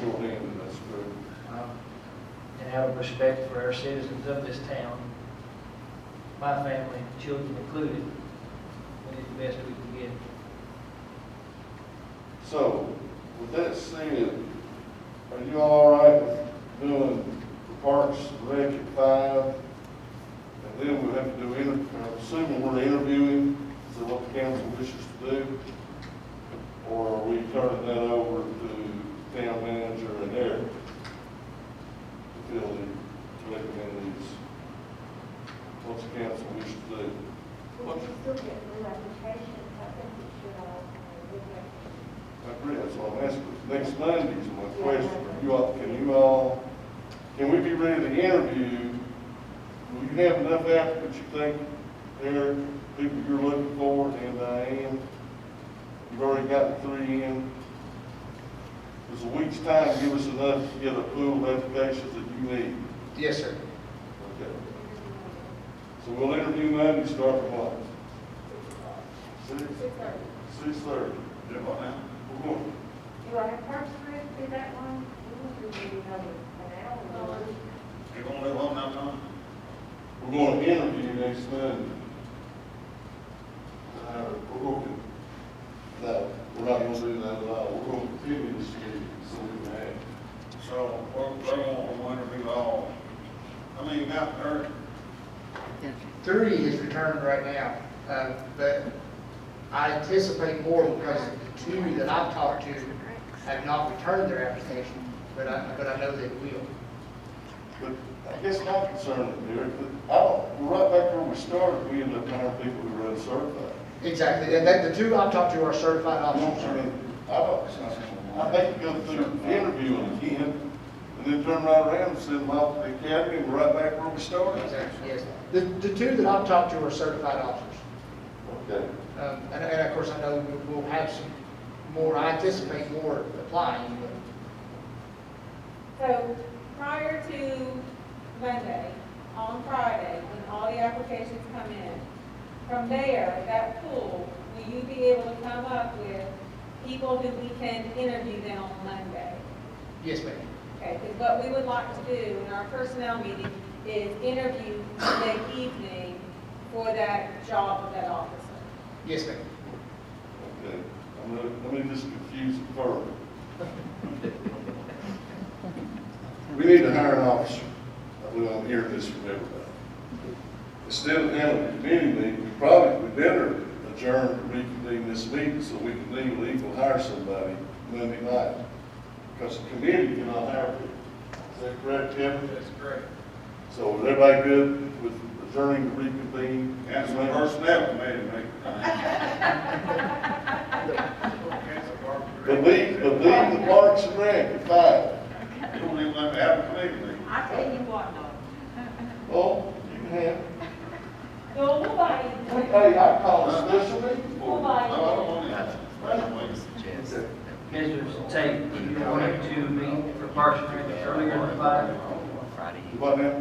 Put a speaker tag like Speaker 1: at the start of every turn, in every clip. Speaker 1: short end of that street.
Speaker 2: uh, and out of respect for our citizens of this town, my family, children included, we did the best we could get.
Speaker 1: So, with that said, are you all right with doing the Parks Rec at five? And then we'll have to do, inter- I'm assuming we're interviewing, is that what the council wishes to do? Or are we turning that over to town manager and Eric to fill the, to recommend these? What's the council wish to do?
Speaker 3: We should still get new applications, I think we should all, uh, look at.
Speaker 1: I agree, that's what I'm asking. Next Monday's my question. You all, can you all, can we be ready to interview? Will you have enough applicants, you think, there, people you're looking for, and Diane? You've already got three in. Does a week's time give us enough to get a pool of applications that you need?
Speaker 4: Yes, sir.
Speaker 1: Okay. So we'll interview Monday, start from what? Six?
Speaker 3: Six thirty.
Speaker 1: Six thirty.
Speaker 5: Do what now?
Speaker 1: We're going.
Speaker 3: Do I have parks for it, be that one? We would do another, an hour.
Speaker 5: You gonna live on that time?
Speaker 1: We're going to interview next Monday. Uh, We're going to, no, we're not going to do that at all. We're going to continue this meeting, so we can act.
Speaker 5: So, we're, we're gonna interview all, I mean, you got Eric,
Speaker 4: Three is returned right now, uh, but I anticipate more because the two that I've talked to have not returned their application, but I, but I know they will.
Speaker 1: But I guess my concern is, Derek, that I don't, we're right back where we started. We end up hiring people who run certified.
Speaker 4: Exactly, and that, the two I've talked to are certified
Speaker 1: I don't, I
Speaker 4: officers.
Speaker 1: mean, I don't, I think you go through interviewing again, and then turn right around and send them off to the academy, and we're right back where we started.
Speaker 4: Exactly, yes. The, the two that I've talked to are certified officers.
Speaker 1: Okay.
Speaker 4: Um, and, and of course, I know we- we'll have some more, I anticipate more applying, but.
Speaker 6: So prior to Monday, on Friday, when all the applications come in, from there, that pool, will you be able to come up with people who we can interview then on Monday?
Speaker 4: Yes, ma'am.
Speaker 6: Okay, because what we would like to do in our personnel meeting is interview the evening for that job of that officer.
Speaker 4: Yes, ma'am.
Speaker 1: Okay, I'm gonna, let me just confuse it further. We need to hire an officer, well, I'm hearing this from everybody. Instead of having a committee meeting, we probably, we better adjourn to reconvene this meeting so we can legally go hire somebody Monday night. Because the committee cannot hire people, is that correct, Kevin?
Speaker 5: that's great.
Speaker 1: So is everybody good with adjourning to reconvene?
Speaker 5: Cancel the personnel committee, make. Cancel park.
Speaker 1: But leave, but leave the parks and rec at five.
Speaker 5: You don't even let me have a committee meeting.
Speaker 6: I tell you what, though,
Speaker 1: Oh, you can have,
Speaker 6: no, we'll buy you.
Speaker 1: hey, I call a special meeting.
Speaker 6: We'll
Speaker 5: No,
Speaker 6: buy
Speaker 5: I
Speaker 6: you.
Speaker 5: don't want that. Special weeks.
Speaker 2: Mrs. Tate, you wanted to meet for Parks and Rec earlier than five?
Speaker 7: Friday,
Speaker 1: What now?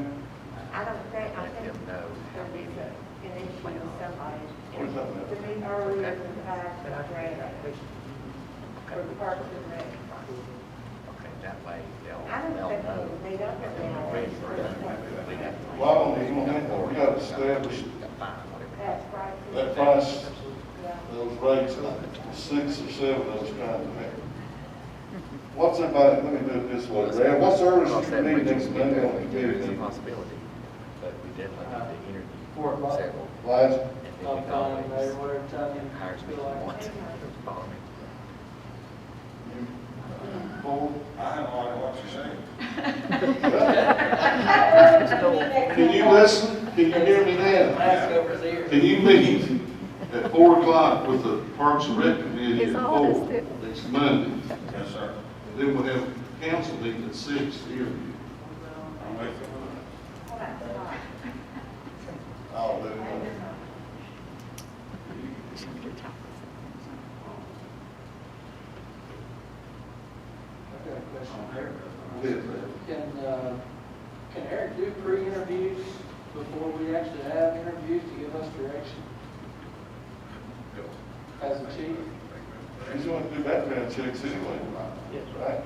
Speaker 3: I don't think, I
Speaker 7: let
Speaker 3: think
Speaker 7: them know how
Speaker 3: there
Speaker 7: many.
Speaker 3: is a, an issue with somebody.
Speaker 1: What is that now?
Speaker 3: To meet earlier than five, to grade, for parks and rec.
Speaker 7: Okay, that way they'll,
Speaker 3: I don't
Speaker 7: they'll
Speaker 3: think
Speaker 7: know.
Speaker 3: we can meet up
Speaker 7: And
Speaker 3: with
Speaker 7: then uh, we're ready for them.
Speaker 3: them.
Speaker 7: We got three.
Speaker 1: Well, I don't even think we got established
Speaker 7: Got five, whatever.
Speaker 3: That's right.
Speaker 1: that price,
Speaker 3: Yeah.
Speaker 1: those rates, like six or seven of those trying to make. What's everybody, let me do it this way, Brad, what's earliest you
Speaker 7: Because that
Speaker 1: can
Speaker 7: we
Speaker 1: meet next
Speaker 7: can get
Speaker 1: Monday
Speaker 7: there,
Speaker 1: on the
Speaker 7: there is
Speaker 1: committee?
Speaker 7: a possibility, but we definitely need to interview
Speaker 2: Four o'clock.
Speaker 7: several.
Speaker 1: Last,
Speaker 7: And then we
Speaker 2: I'm
Speaker 7: can
Speaker 2: calling
Speaker 7: always
Speaker 2: there, whatever time
Speaker 7: Hire
Speaker 2: you
Speaker 7: me
Speaker 2: feel like.
Speaker 7: once, follow me.
Speaker 1: you, four?
Speaker 5: I don't like what you're saying.
Speaker 1: Can you listen? Can you hear me then?
Speaker 2: Ask over there.
Speaker 1: Can you meet at four o'clock with the Parks and Rec Committee at four next Monday?
Speaker 5: Yes, sir.
Speaker 1: Then we'll have council meeting at six here.
Speaker 5: I'm with you.
Speaker 3: Well, that's fine.
Speaker 1: I'll do it.
Speaker 2: I've got a question there.
Speaker 1: Liz.
Speaker 2: Can, uh, can Eric do pre-interviews before we actually have interviews to give us direction as a chief?
Speaker 1: He's going to do background checks anyway.
Speaker 2: Yes.
Speaker 1: Right?